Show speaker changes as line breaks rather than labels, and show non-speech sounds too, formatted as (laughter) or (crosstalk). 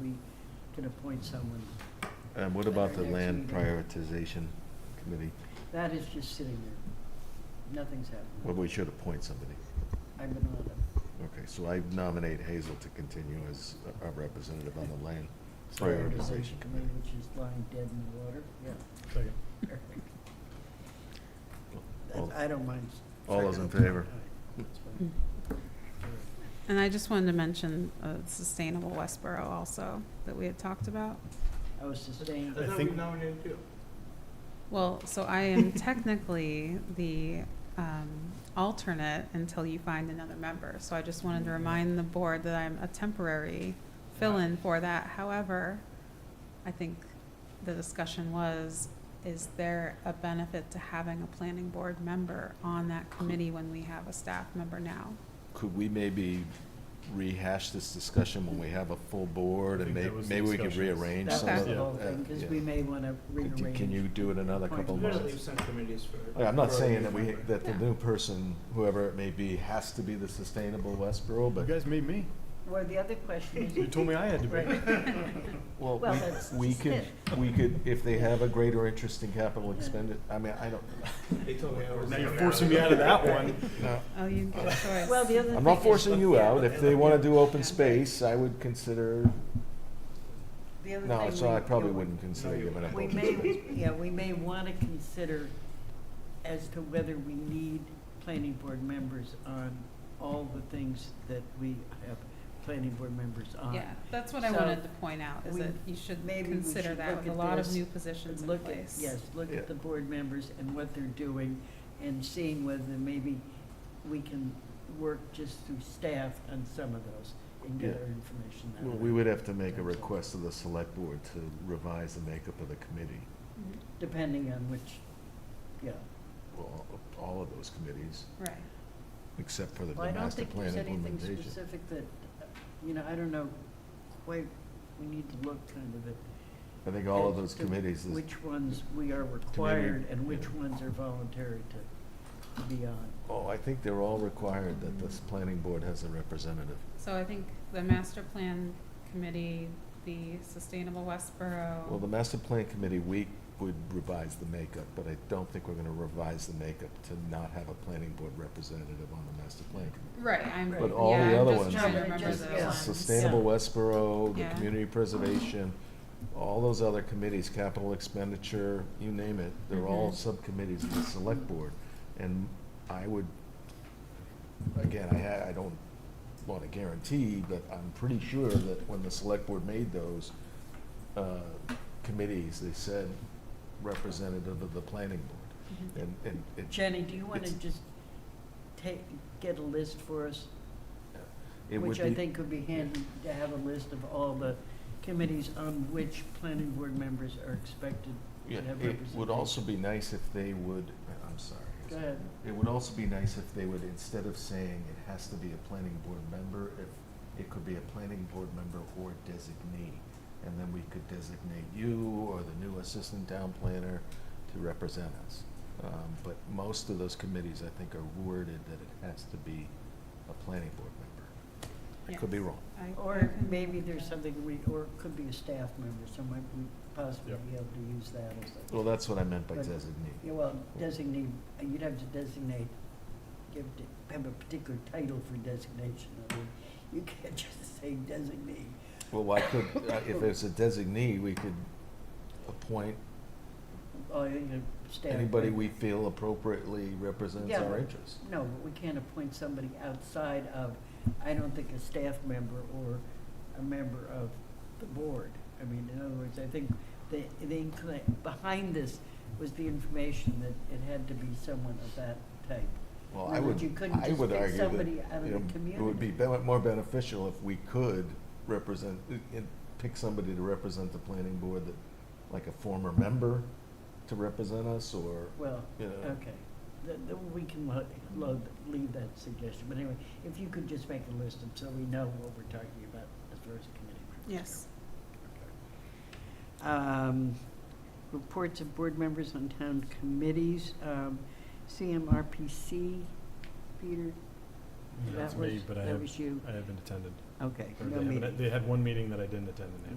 we can appoint someone.
And Um, what about the
Next
land
meeting.
prioritization committee?
That is just sitting there. Nothing's happening.
Well, we should appoint somebody.
I've been on it.
Okay, so I nominate Hazel to continue as our representative on the land.
So the
Prioritization
decision committee,
committee.
Which is lying dead in the water, yeah.
Second.
(laughs)
Perfect.
All-
I I don't mind.
All those in
second.
favor?
All right, that's fine. All right.
And I just wanted to mention uh, Sustainable Westboro also, that we had talked about.
I was sustained.
I
I thought we
think-
nominated you.
Well, so
(laughs)
I am technically the um, alternate until you find another member. So I just wanted to
Mm-hmm.
remind the board that I'm a temporary fill-in for that. However, I think the discussion was, is there a benefit to having a planning board member on that
(laughs)
committee when we have a staff member now?
Could we maybe rehash this discussion when we have a full board
I
and
think
may,
that was the
maybe we could
discussion.
rearrange
That
some
was
of
the
Okay.
the. uh,
whole thing, because
yeah.
we may want to
Could you-
rearrange.
Can you do it another
Oh,
couple
Well,
We're gonna
it's-
leave
months?
some committees for.
Yeah, I'm not
for a
saying
new
that we,
member.
that the
Yeah.
new person, whoever it may be, has to be the sustainable Westboro,
You
but.
guys made me.
Well, the other question is.
You told me I had to be. (laughs)
Well,
Well,
we-
that's
we
just
could,
it.
we could, if they have a greater interest in capital expended, I mean, I don't.
They told me I was.
Now you're
nominated.
forcing me out
(laughs)
of that one.
No.
Oh, you get a choice.
Well, the other
I'm
thing
not
is-
forcing you out. If they wanna do open
Yeah.
space, I would consider,
The other
no,
thing
so I
we-
probably
you know,
wouldn't consider
you
giving up
We
open
may,
space.
yeah, we may want to consider as to whether we need planning board members on all the things that we have planning board members on.
Yeah, that's what I
Um, So
wanted to point out, is
we-
that you should
maybe we
consider
should
that
look
with a
at
lot of
this
new positions in
Look at-
place.
Yes, look
Yeah.
at the board members and what they're doing and seeing whether maybe we can work just through staff on some of those and get
Yeah.
our information out.
Well, we would have to make a request to the select board to revise the makeup of the committee,
Mhm.
Depending on which, yeah.
well, of all of those committees,
Right.
except for the
Well, I don't
master
think
plan
there's anything
implementation.
specific that, uh, you know, I don't know quite, we need to look kind of at.
I think all of
as
those
to
committees, is-
Which ones we are required and which ones are voluntary to, to be on.
oh, I think they're all required that this planning board has a representative.
So I think the master plan committee, the sustainable Westboro.
Well, the master plan committee, we would revise the makeup, but I don't think we're gonna revise the makeup to not have a planning board representative on the master plan committee.
Right, I'm,
But
yeah,
all the other
I'm
ones-
just trying to
No, but
remember
just-
the
yeah.
ones.
Sustainable Westboro, the
Yeah.
community preservation, all those other committees, capital expenditure, you name it, they're all
Mhm.
subcommittees of the select board. And I would, again, I ha, I don't wanna guarantee, but I'm pretty sure that when the select board made those, uh, committees, they said representative of the planning board.
Mhm.
And, and it,
Jenny, do you want to
It's-
just take, get a list for us?
it would
Which
be.
I think would be handy to have a list of all the committees on which planning board members are expected to
Yeah,
have
it
representation.
would also be nice if they would, uh, I'm sorry.
Go ahead.
It would also be nice if they would, instead of saying it has to be a planning board member, if it could be a planning board member or designee. And then we could designate you or the new assistant town planner to represent us. Um, but most of those committees, I think, are worded that it has to be a planning board member. I could be
Yes.
wrong.
I- I
Or
can
maybe
look
there's
at
something we, or it could be a staff member, so might we possibly
Yep.
be able to use that as a.
Well, that's what I meant by
But-
designee.
Yeah, well, designate, uh, you'd have to designate, give, it- have a particular title for designation. I mean, you can't (laughs) just say designate.
Well, why could, uh, if there's a designee, we could appoint
Oh, you know, staff.
anybody we feel appropriately represents
Yeah.
our interests.
No, but we can't appoint somebody outside of, I don't think a staff member or a member of the board. I mean, in other words, I think the, the inclin, behind this was the information that it had to be someone of that type.
Well,
In
I
other words,
would,
you couldn't
I
just
would
pick
argue that,
somebody out of
you
the
know, it would be
community.
be- more beneficial if we could represent, uh, and pick somebody to represent the planning board that, like a former member to represent us, or,
Well,
you know.
okay, Th- th- we can lo- lo- leave that suggestion, but anyway, if you could just make a list of, so we know what we're talking about as far as the committee. members
Yes.
go. Um, Reports of board members on town committees, um, CMRPC, Peter,
That's
that was,
me, but I
that
have,
was you.
I haven't attended.
Okay,
Or
no
they haven't-
meeting.
They had one meeting that I didn't attend and they haven't